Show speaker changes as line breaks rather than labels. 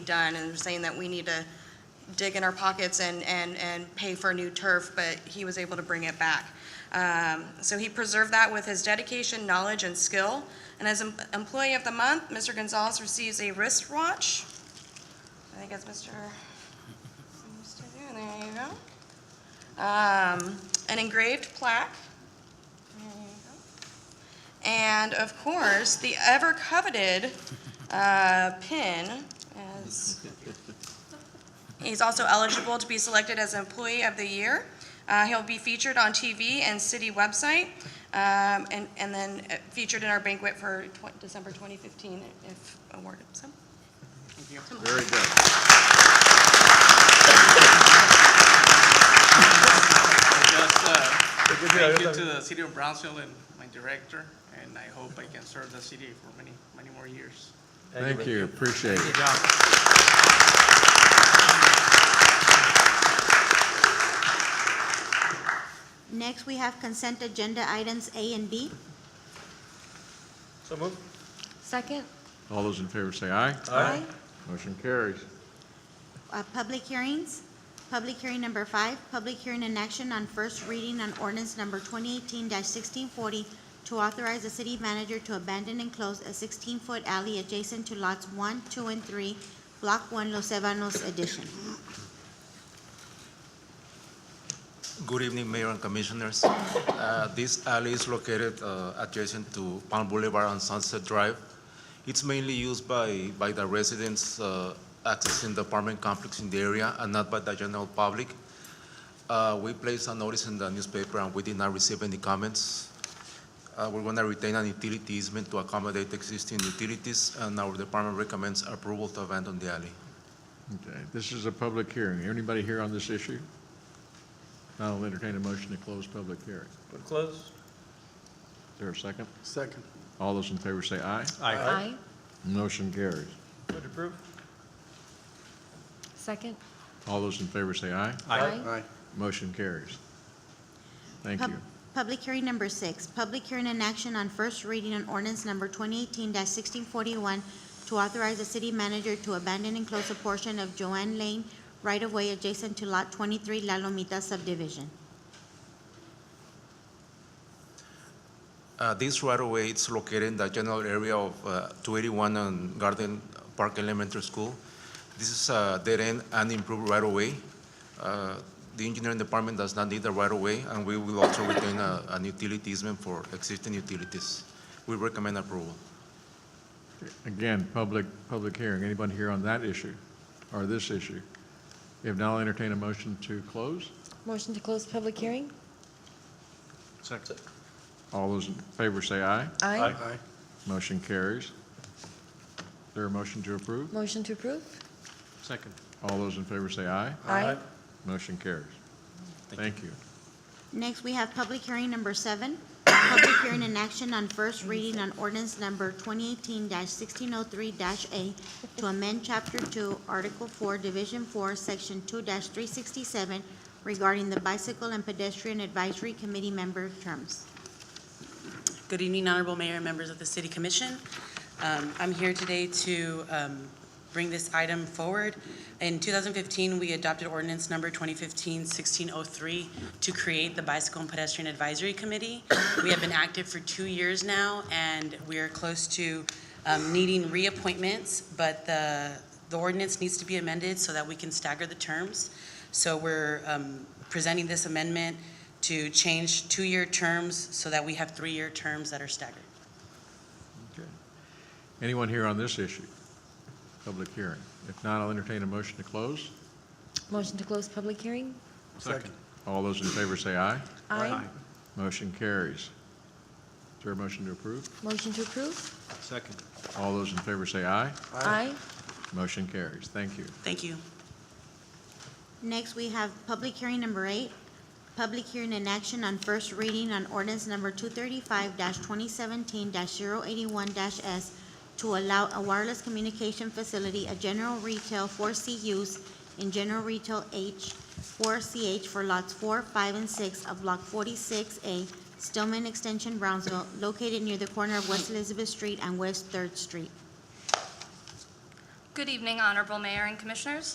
done, and saying that we need to dig in our pockets and, and, and pay for new turf, but he was able to bring it back. Um, So he preserved that with his dedication, knowledge, and skill. And as em- Employee of the Month, Mr. Gonzalez receives a wristwatch. I think it's Mr. Mr. There you go. Um, An engraved plaque. There you go. And of course, the ever coveted uh, pin as He's also eligible to be selected as Employee of the Year. Uh, He'll be featured on TV and city website, um, and and then uh, featured in our banquet for tw- December 2015 if awarded. So,
Very good.
Just uh, thank you
job.
to the city of Brownsville and my director, and I hope I can serve the city for many, many more years.
Thank you, appreciate it.
Next, we have consent agenda items A and B.
So moved.
Second?
All those in favor say aye.
Aye.
Motion carries.
Uh, Public hearings, public hearing number five, public hearing in action on first reading on ordinance number 2018-1640 to authorize the city manager to abandon and close a 16-foot alley adjacent to lots 1, 2, and 3, Block 1, Los Ebanos Edition.
Good evening, Mayor and Commissioners. Uh, This alley is located uh, adjacent to Palm Boulevard and Sunset Drive. It's mainly used by, by the residents uh, accessing the apartment complex in the area and not by the general public. Uh, We placed a notice in the newspaper and we did not receive any comments. Uh, We're going to retain an utility easement to accommodate existing utilities, and our department recommends approval to abandon the alley.
Okay, this is a public hearing. Anybody here on this issue? I'll entertain a motion to close public hearing. Is
Would close.
there a second?
Second.
All those in favor say aye.
Aye.
Motion carries.
Would approve.
Second?
All those in favor say aye.
Aye.
Aye.
Motion carries. Thank
Pub-
you.
Public hearing number six, public hearing in action on first reading on ordinance number 2018-1641 to authorize the city manager to abandon and close a portion of Joanne Lane right-of-way adjacent to Lot 23 La Lomita subdivision.
Uh, This right-of-way is located in the general area of uh, 281 and Garden Park Elementary School. This is uh, a dead-end unimproved right-of-way. Uh, The engineering department does not need the right-of-way, and we will also retain a- an utility easement for existing utilities. We recommend approval.
Again, public, public hearing. Anybody here on that issue or this issue? If not, I'll entertain a motion to close.
Motion to close public hearing?
Second.
All those in favor say aye.
Aye.
Aye.
Motion carries. Is there a motion to approve?
Motion to approve?
Second.
All those in favor say aye.
Aye.
Motion carries. Thank you.
Next, we have public hearing number seven, public hearing in action on first reading on ordinance number 2018-1603-A to amend Chapter 2, Article 4, Division 4, Section 2-367 regarding the Bicycle and Pedestrian Advisory Committee member terms.
Good evening, Honorable Mayor and members of the City Commission. Um, I'm here today to um, bring this item forward. In 2015, we adopted ordinance number 2015-1603 to create the Bicycle and Pedestrian Advisory Committee. We have been active for two years now, and we are close to um, needing reappointments, but the the ordinance needs to be amended so that we can stagger the terms. So we're um, presenting this amendment to change two-year terms so that we have three-year terms that are staggered.
Okay. Anyone here on this issue? Public hearing. If not, I'll entertain a motion to close.
Motion to close public hearing?
Second.
All those in favor say aye.
Aye.
Motion carries. Is there a motion to approve?
Motion to approve?
Second.
All those in favor say aye.
Aye.
Motion carries. Thank you.
Thank you.
Next, we have public hearing number eight, public hearing in action on first reading on ordinance number two thirty-five twenty seventeen 81s to allow a wireless communication facility, a general retail four C use in general retail H, four CH for lots four, five, and six of block forty-six A, Stillman Extension, Brownsville, located near the corner of West Elizabeth Street and West Third Street.
Good evening, Honorable Mayor and Commissioners.